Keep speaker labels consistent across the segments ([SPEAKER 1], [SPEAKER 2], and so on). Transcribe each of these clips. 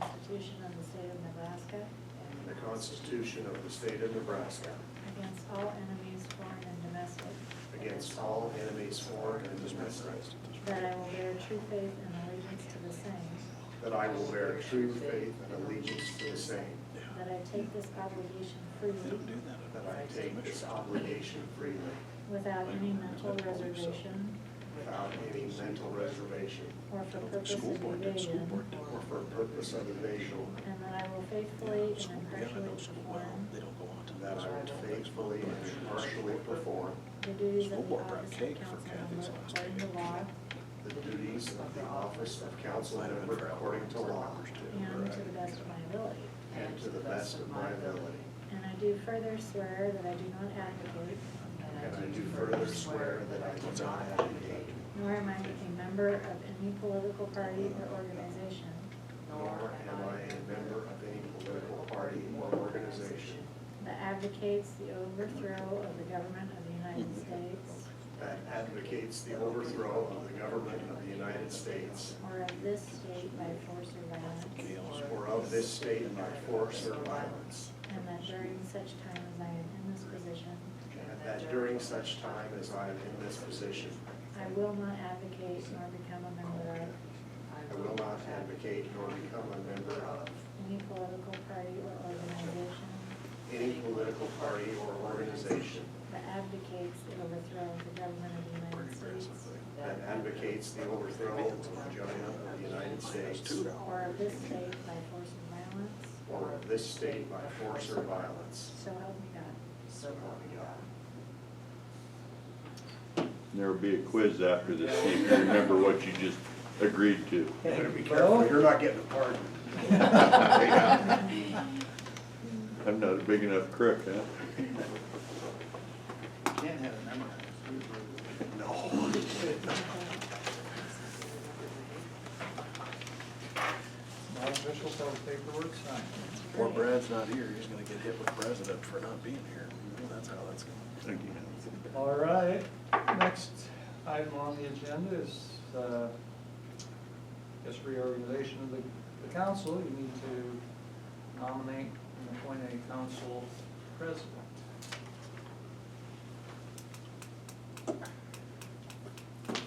[SPEAKER 1] Constitution of the State of Nebraska
[SPEAKER 2] and the Constitution of the State of Nebraska
[SPEAKER 1] against all enemies, foreign and domestic.
[SPEAKER 2] against all enemies, foreign and domestic,
[SPEAKER 1] That I will bear true faith and allegiance to the same.
[SPEAKER 2] that I will bear true faith and allegiance to the same,
[SPEAKER 1] That I take this obligation freely
[SPEAKER 2] that I take this obligation freely
[SPEAKER 1] without any mental reservation
[SPEAKER 2] without any mental reservation
[SPEAKER 1] or for purpose
[SPEAKER 3] School
[SPEAKER 1] of
[SPEAKER 3] board did, school
[SPEAKER 1] evasion.
[SPEAKER 3] board did.
[SPEAKER 2] or for purpose of evasion,
[SPEAKER 1] And that I will
[SPEAKER 3] Yeah,
[SPEAKER 1] faithfully and
[SPEAKER 3] school- yeah, I know
[SPEAKER 1] impartially
[SPEAKER 3] school well.
[SPEAKER 1] perform
[SPEAKER 3] They don't go on to.
[SPEAKER 2] and that I will faithfully and impartially perform
[SPEAKER 1] the duties
[SPEAKER 3] School
[SPEAKER 1] of the
[SPEAKER 3] board brought
[SPEAKER 1] office of
[SPEAKER 3] cake for
[SPEAKER 1] council member
[SPEAKER 3] Kathy's last
[SPEAKER 1] according to
[SPEAKER 3] week.
[SPEAKER 1] law
[SPEAKER 2] the duties of the office of council
[SPEAKER 3] Might have been
[SPEAKER 2] member
[SPEAKER 3] for
[SPEAKER 2] according to
[SPEAKER 3] Albert
[SPEAKER 2] law
[SPEAKER 3] Roberts, too.
[SPEAKER 1] and to the best of my ability.
[SPEAKER 2] and to the best of my ability.
[SPEAKER 1] And I do further swear that I do not advocate,
[SPEAKER 2] And I do further swear that I do not advocate,
[SPEAKER 1] nor am I a member of any political party or organization,
[SPEAKER 2] nor am I a member of any political party or organization
[SPEAKER 1] that advocates the overthrow of the government of the United States
[SPEAKER 2] that advocates the overthrow of the government of the United States
[SPEAKER 1] or of this state by force or violence,
[SPEAKER 3] Gail's
[SPEAKER 2] or of this state by force or violence,
[SPEAKER 1] and that during such time as I am in this position,
[SPEAKER 2] and that during such time as I am in this position,
[SPEAKER 1] I will not advocate nor become a member of
[SPEAKER 2] I will not advocate nor become a member of
[SPEAKER 1] any political party or organization
[SPEAKER 2] any political party or organization
[SPEAKER 1] that advocates the overthrow of the government of the United States
[SPEAKER 2] that advocates the overthrow of the government of the United States
[SPEAKER 1] or of this state by force or violence,
[SPEAKER 2] or of this state by force or violence.
[SPEAKER 1] so help me God.
[SPEAKER 2] So help me God.
[SPEAKER 4] There'll be a quiz after this, see if you remember what you just agreed to.
[SPEAKER 2] You Better be careful, you're not getting a pardon. Yeah.
[SPEAKER 4] I'm not a big enough crook, huh?
[SPEAKER 3] Can't have it memorized.
[SPEAKER 2] No.
[SPEAKER 5] Not official, so the paperwork signed.
[SPEAKER 3] Poor Brad's not here, he's gonna get hit with president for not being here, that's how that's going.
[SPEAKER 4] Thank you.
[SPEAKER 5] All right, next item on the agenda is, uh, this reorganization of the, the council. You need to nominate and appoint a council president.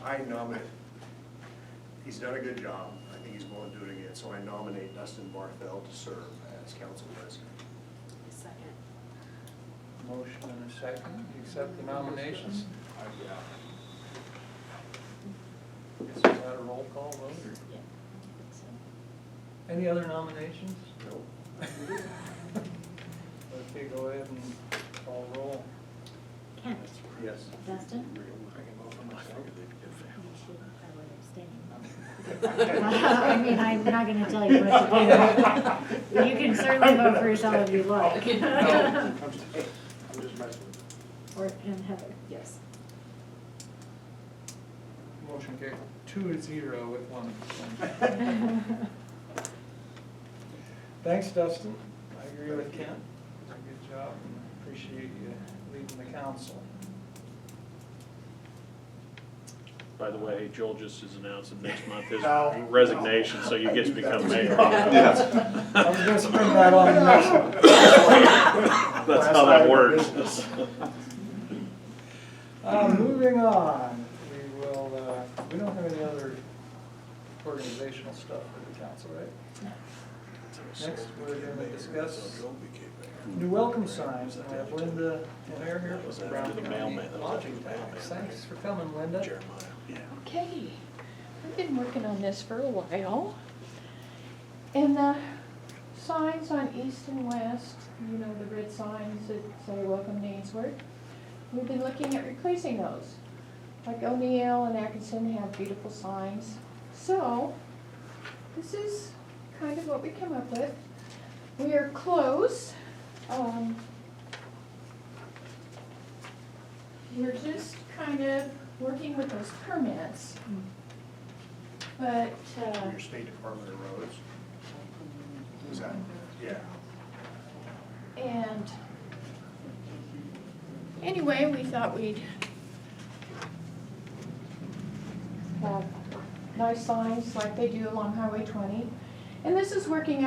[SPEAKER 2] I nominate, he's done a good job, I think he's going to do it again, so I nominate Dustin Barthel to serve as council president.
[SPEAKER 1] Second.
[SPEAKER 5] Motion and a second, You accept the nominations? Guess we had a roll call vote. or- Any other nominations?
[SPEAKER 2] Nope.
[SPEAKER 5] Okay, go ahead and call roll.
[SPEAKER 1] Kent.
[SPEAKER 2] Yes.
[SPEAKER 1] Dustin. You
[SPEAKER 3] If
[SPEAKER 1] should probably abstain. I mean, I'm not gonna tell you what to do. You can certainly vote for yourself if you like.
[SPEAKER 2] No, I'm just- I'm just messing with you.
[SPEAKER 1] Or, and Heather. Yes.
[SPEAKER 5] Motion carried two to zero with one abstention. Thanks, Dustin. I agree with Kent. It's a good job and I appreciate you leading the council.
[SPEAKER 6] By the way, Joel just is announcing next month his
[SPEAKER 2] No.
[SPEAKER 6] resignation, so you get to
[SPEAKER 2] I do that
[SPEAKER 6] become
[SPEAKER 2] to
[SPEAKER 6] mayor.
[SPEAKER 2] you.
[SPEAKER 5] I was gonna spring that on the next one.
[SPEAKER 6] That's
[SPEAKER 2] Last
[SPEAKER 6] how
[SPEAKER 2] item
[SPEAKER 6] that
[SPEAKER 2] of
[SPEAKER 6] works.
[SPEAKER 2] business.
[SPEAKER 5] Uh, moving on, we will, uh, we don't have any other organizational stuff for the council, right? Next, we're gonna discuss New welcome signs, and we have Linda Lanier here
[SPEAKER 3] That was
[SPEAKER 5] from
[SPEAKER 3] after
[SPEAKER 5] Brown
[SPEAKER 3] the
[SPEAKER 5] County
[SPEAKER 3] mailman. That was after
[SPEAKER 5] Lodging
[SPEAKER 3] the mailman.
[SPEAKER 5] Tax. Thanks for coming, Linda.
[SPEAKER 3] Jeremiah, yeah.
[SPEAKER 7] Okay, I've been working on this for a while. And the signs on east and west, you know, the red signs that say welcome to Ainsworth, we've been looking at replacing those. Like O'Neill and Atkinson have beautiful signs. So, this is kind of what we came up with. We are close. Um, We're just kind of working with those permits. But, uh,
[SPEAKER 2] Your State Department of Roads, is that, yeah.
[SPEAKER 7] and anyway, we thought we'd have nice signs like they do along Highway twenty. And this is working